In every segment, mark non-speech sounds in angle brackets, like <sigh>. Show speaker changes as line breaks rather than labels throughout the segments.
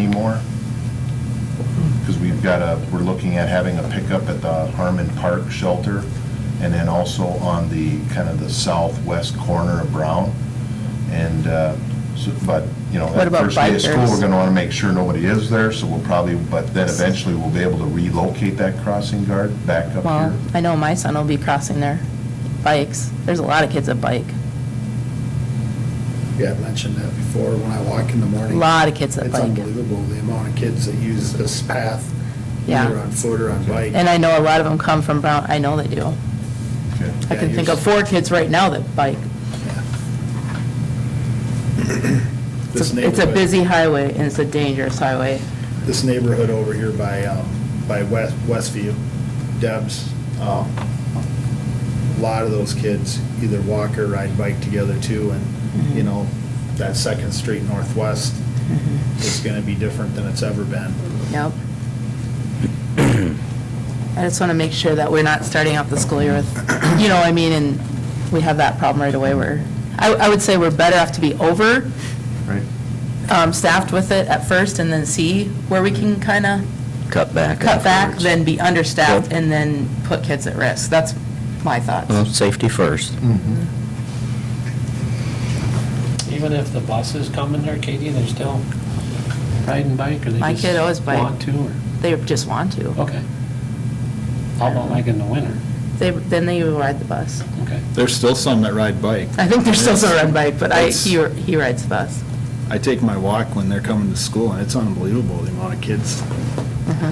more. Because we've got a, we're looking at having a pickup at the Harmon Park Shelter, and then also on the, kind of the southwest corner of Brown. And, uh, so- but, you know,
What
that
about
first day of school,
bikers?
we're going to want to make sure nobody is there, so we'll probably, but then eventually we'll be able to relocate that crossing guard back up
Well,
here.
I know my son will be crossing their bikes. There's a lot of kids that bike,
Yeah, I've mentioned that before, when I walk in the
a
morning.
lot of kids that
It's
bike.
unbelievable, the amount of kids that use this path,
Yeah.
either on foot or on bike.
And I know a lot of them come from Brown, I know they do.
Okay.
I can think of four kids right now that bike.
This
It's a- It's a
neighborhood-
busy highway and it's a dangerous highway.
This neighborhood over here by, um, by West, Westview, Deb's, um, a lot of those kids either walk or ride bike together too, and,
Mm-hmm.
you know, that Second Street Northwest is gonna be different than it's ever been.
Mm-hmm. Yep. I just want to make sure that we're not starting off the school year with, you know, what I mean, and we have that problem right away. We're, I, I would say we're better off to be over
Right.
um, staffed with it at first and then see where we can kind of
Cut back.
cut back,
afterwards.
then be understaffed
Yep.
and then put kids at risk. That's my thoughts.
Well, Safety first.
Even if the buses come in there, Katie, they're still riding bike, or they just...
My kid always bike.
Want to, or,
They just want to.
okay. How about like in the winter?
They, then they ride the bus.
Okay.
There's still some that ride bike.
I think they're still gonna ride bike, but I,
It's-
he, he rides the bus.
I take my walk when they're coming to school, and it's unbelievable the amount of kids. Mm-hmm.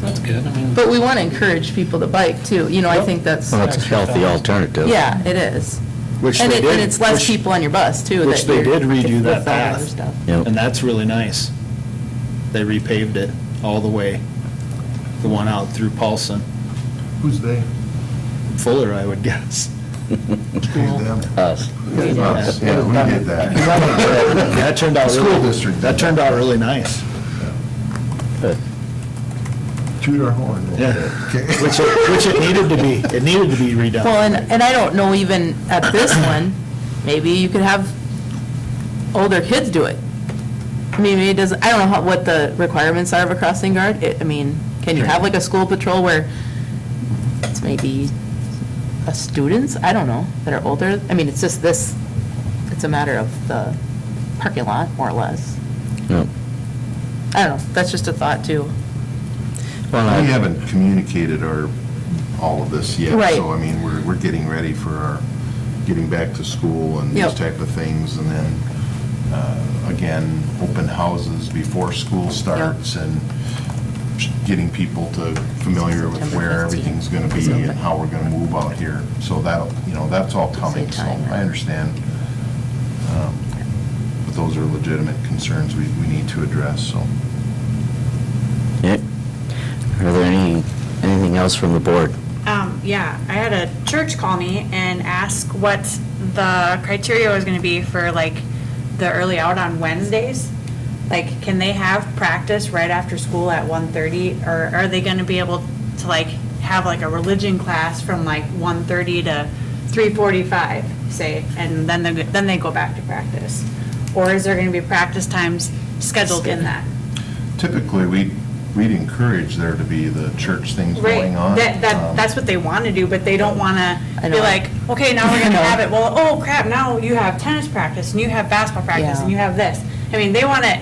That's good, I mean...
But we want to encourage people to bike too. You know, I
Yep.
think that's,
Well, it's a healthy alternative.
yeah, it is.
Oh, Which
And
they
it-
did-
And it's less
which-
people on your bus too.
which
that
they
you're-
did redo that
with all other
path.
stuff.
Yep.
And that's really nice. They repaved it all the way, the one out through Paulson,
Who's they?
Fuller, I would guess.
Who's them?
Us.
Us, Yeah, we did <laughs> that.
That turned out
The
really.
School district. did
That turned out really nice.
Toot our horn. a little
Yeah.
bit. Okay.
Which it, which it needed to be, it needed to be redone.
Well, and, and I don't know even at this one, maybe you could have older kids do it. I mean, maybe it doesn't, I don't know how- what the requirements are of a crossing guard. It- I mean, can you have like a school patrol where it's maybe a students, I don't know, that are older? I mean, it's just this, it's a matter of the parking lot, more or less.
Yep.
I don't know, that's just a thought too.
Well,
We
I-
haven't communicated our, all of this yet.
Right.
So, I mean, we're, we're getting ready for our, getting back to school and these
Yep.
type of things. And then, uh, again, open houses before school starts and getting people to familiar with
September
where
15th
everything's going to
is
be and
open.
how we're going to move out here. So that'll, you know, that's all coming. So
time, yeah.
I understand. Um, But those are legitimate concerns we, we need to address, so.
yeah. Are there any, anything else from the board?
Um, yeah, I had a church call me and ask what the criteria was gonna be for like the early out on Wednesdays. Like, can they have practice right after school at 1:30, or are they gonna be able to like have like a religion class from like 1:30 to three forty-five, say, and then they, then they go back to practice? Or is there gonna be practice times scheduled in that?
Typically, we, we'd encourage there to be the church things going on.
That, that,
Um,
that's what they want to do, but they don't want
I
to
know.
be like, okay, now
<laughs>
we're
I
going to
know.
have it, well, oh crap, now you have tennis practice, and you have basketball practice,
Yeah.
and you have this. I mean, they want it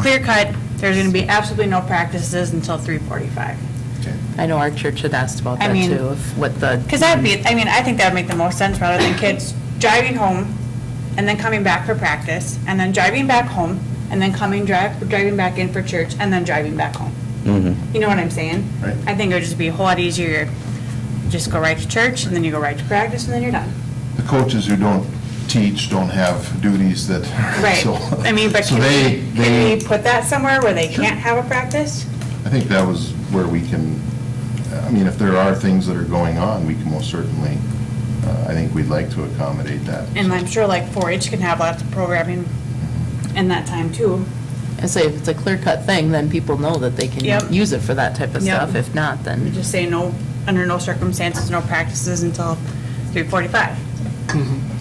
clear cut, there's going to be absolutely no practices until three forty-five.
okay.
I know our church had asked about
I
that
mean-
too, of what the.
Because that'd be, I mean, I think that'd make the most sense rather than kids driving home and then coming back for practice, and then driving back home, and then coming, drive, driving back in for church, and then driving back home.
Mm-hmm.
You know what I'm saying?
Right.
I think it would just be a whole lot easier, just go right to church, and then you go right to practice, and then you're done.
The coaches who don't teach don't have duties that, <laughs>
Right.
so.
I mean, but
so
can
they-
we,
they-
can we put that somewhere where they can't have a practice?
I think that was where we can, I mean, if there are things that are going on, we can most certainly, uh, I think we'd like to accommodate that.
And I'm sure like 4-H can have lots of programming in that time too.
I say, if it's a clear-cut thing, then people know that they
Yep.
can use it for that type of
Yep.
stuff. If not,
We
then,
just say no, under no circumstances, no practices until 3:45.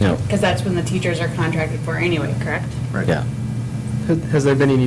No.
Because that's when the teachers are contracted for anyway, correct?
Right.
Yeah.
Has has there been any